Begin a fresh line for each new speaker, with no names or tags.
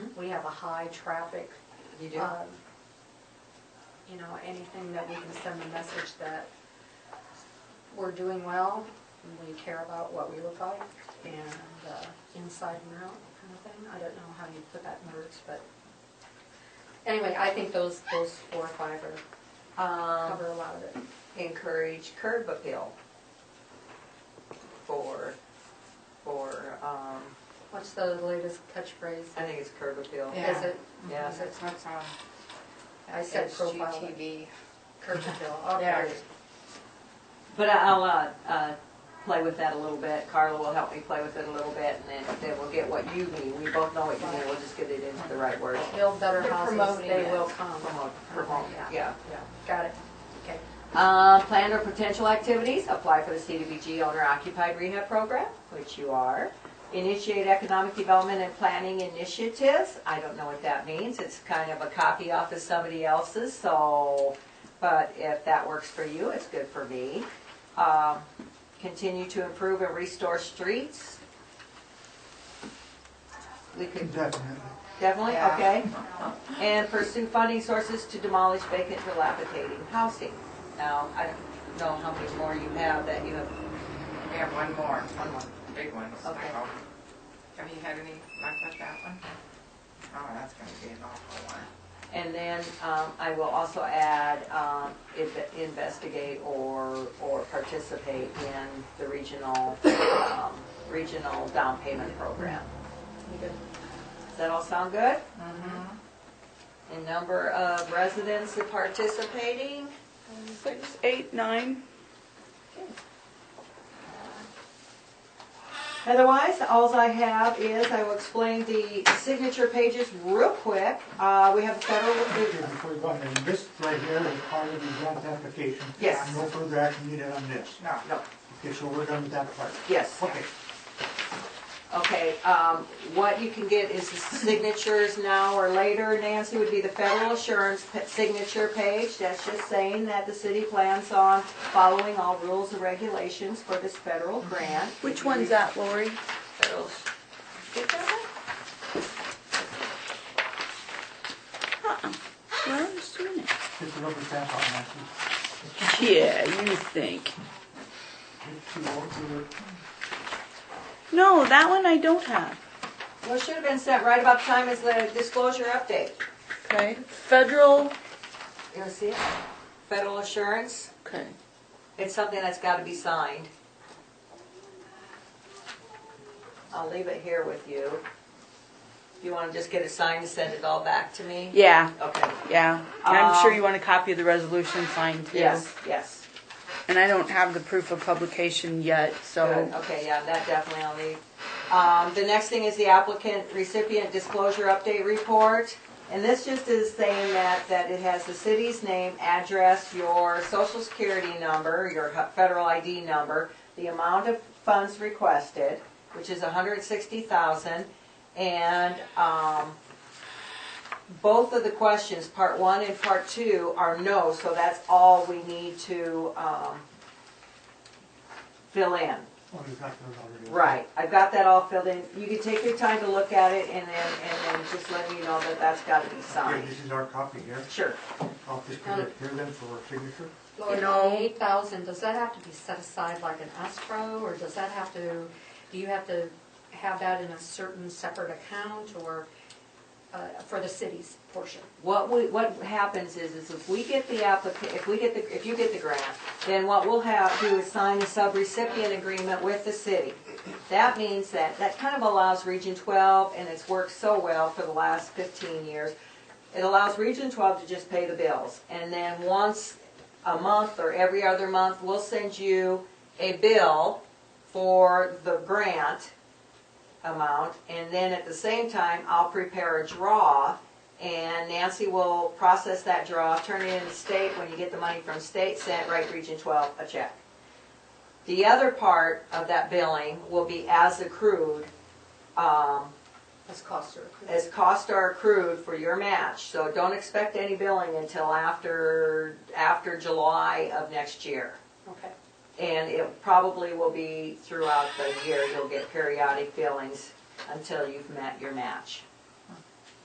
have a high traffic.
You do?
um, You know, anything that we can send a message that we're doing well, and we care about what we look like, and uh, inside and out kind of thing. I don't know how you put that in words, but anyway, I think those, those four or five are,
Um,
cover a lot of it.
encourage curb appeal for, for, um,
What's the latest catchphrase?
I think it's curb appeal.
Yeah.
Is it,
Yeah.
is it,
That's on
I said profile, but
HGTV.
curb appeal,
There.
okay.
But I- I'll, uh, uh, play with that a little bit. Carla will help me play with it a little bit and then, then we'll get what you mean. We both know what you mean. We'll just get it into the right words.
Build better
They're
houses,
promoting
they
it.
will Oh, come.
Promote, promote, yeah.
Yeah, got it, okay.
Uh, planned or potential activities, apply for the CDBG owner occupied rehab program, which you are. Initiate economic development and planning initiatives, I don't know what that means, it's kind of a copy off of somebody else's, so, but if that works for you, it's good for me. Um, continue to improve and restore streets. We could
Definitely.
Definitely,
Yeah.
okay. And pursue funding sources to demolish vacant dilapidating housing. Now, I don't know how many more you have that you have,
We have one more,
one more.
big one. so-
Okay.
Have you had any luck with that one? Oh, that's gonna be an awful one.
And then um, I will also add, um, inve- investigate or, or participate in the regional, um, regional down payment program.
You good?
Does that all sound good? And number of residents participating?
Six, eight, nine.
Otherwise, alls I have is, I will explain the signature pages real quick. Uh, we have federal,
Here, Before you go on, and this right here is part of the grant application.
Yes.
No further action needed on this.
No.
no,
Okay, so we're done with that part.
yes,
Okay,
okay, um, what you can get is the signatures now or later, Nancy, would be the federal assurance p- signature page. That's just saying that the city plans on following all rules and regulations for this federal grant.
Which one's that, Lori?
Federal s- Did that one?
Well, I'm just doing it.
just a rubber stamp on that.
Yeah, you think.
It's too old to-
No, that one I don't have.
Well, it should have been sent right about the time as the disclosure update.
Okay. Federal.
You wanna see it? Federal assurance.
Okay.
It's something that's gotta be signed. I'll leave it here with you. You wanna just get it signed and send it all back to me?
Yeah,
Okay.
yeah. I'm sure
Um,
you want a copy of the resolution signed too.
Yes, yes.
And I don't have the proof of publication yet, so.
Good, okay, yeah, that definitely I'll leave. Um, the next thing is the applicant recipient disclosure update report. And this just is saying that, that it has the city's name, address, your social security number, your hu- federal ID number, the amount of funds requested, which is hundred and sixty thousand, and, um, both of the questions, part one and part two, are no, so that's all we need to, um, fill in.
Oh, you've got those already.
Right, I've got that all filled in. You can take your time to look at it and then, and then just let me know that that's gotta be
Okay,
signed.
this is our copy here.
Sure.
I'll just give it here then for our signature.
Lori,
know-
the eight thousand, does that have to be set aside like an escrow, or does that have to, do you have to have that in a certain separate account, or, uh, for the city's portion?
What we, what happens is, is if we get the applica, if we get the, if you get the grant, then what we'll have, do is sign a sub-recipient agreement with the city. That means that, that kind of allows Region twelve, and it's worked so well for the last fifteen years, it allows Region twelve to just pay the bills. And then once a month or every other month, we'll send you a bill for the grant amount. And then at the same time, I'll prepare a draw and Nancy will process that draw, turn it into state. When you get the money from state, send it right Region 12 a check. The other part of that billing will be as accrued, um,
That's cost or?
as costs are accrued for your match. So don't expect any billing until after, after July of next year.
Okay,
And it probably will be throughout the year, you'll get periodic billings until you've met your match.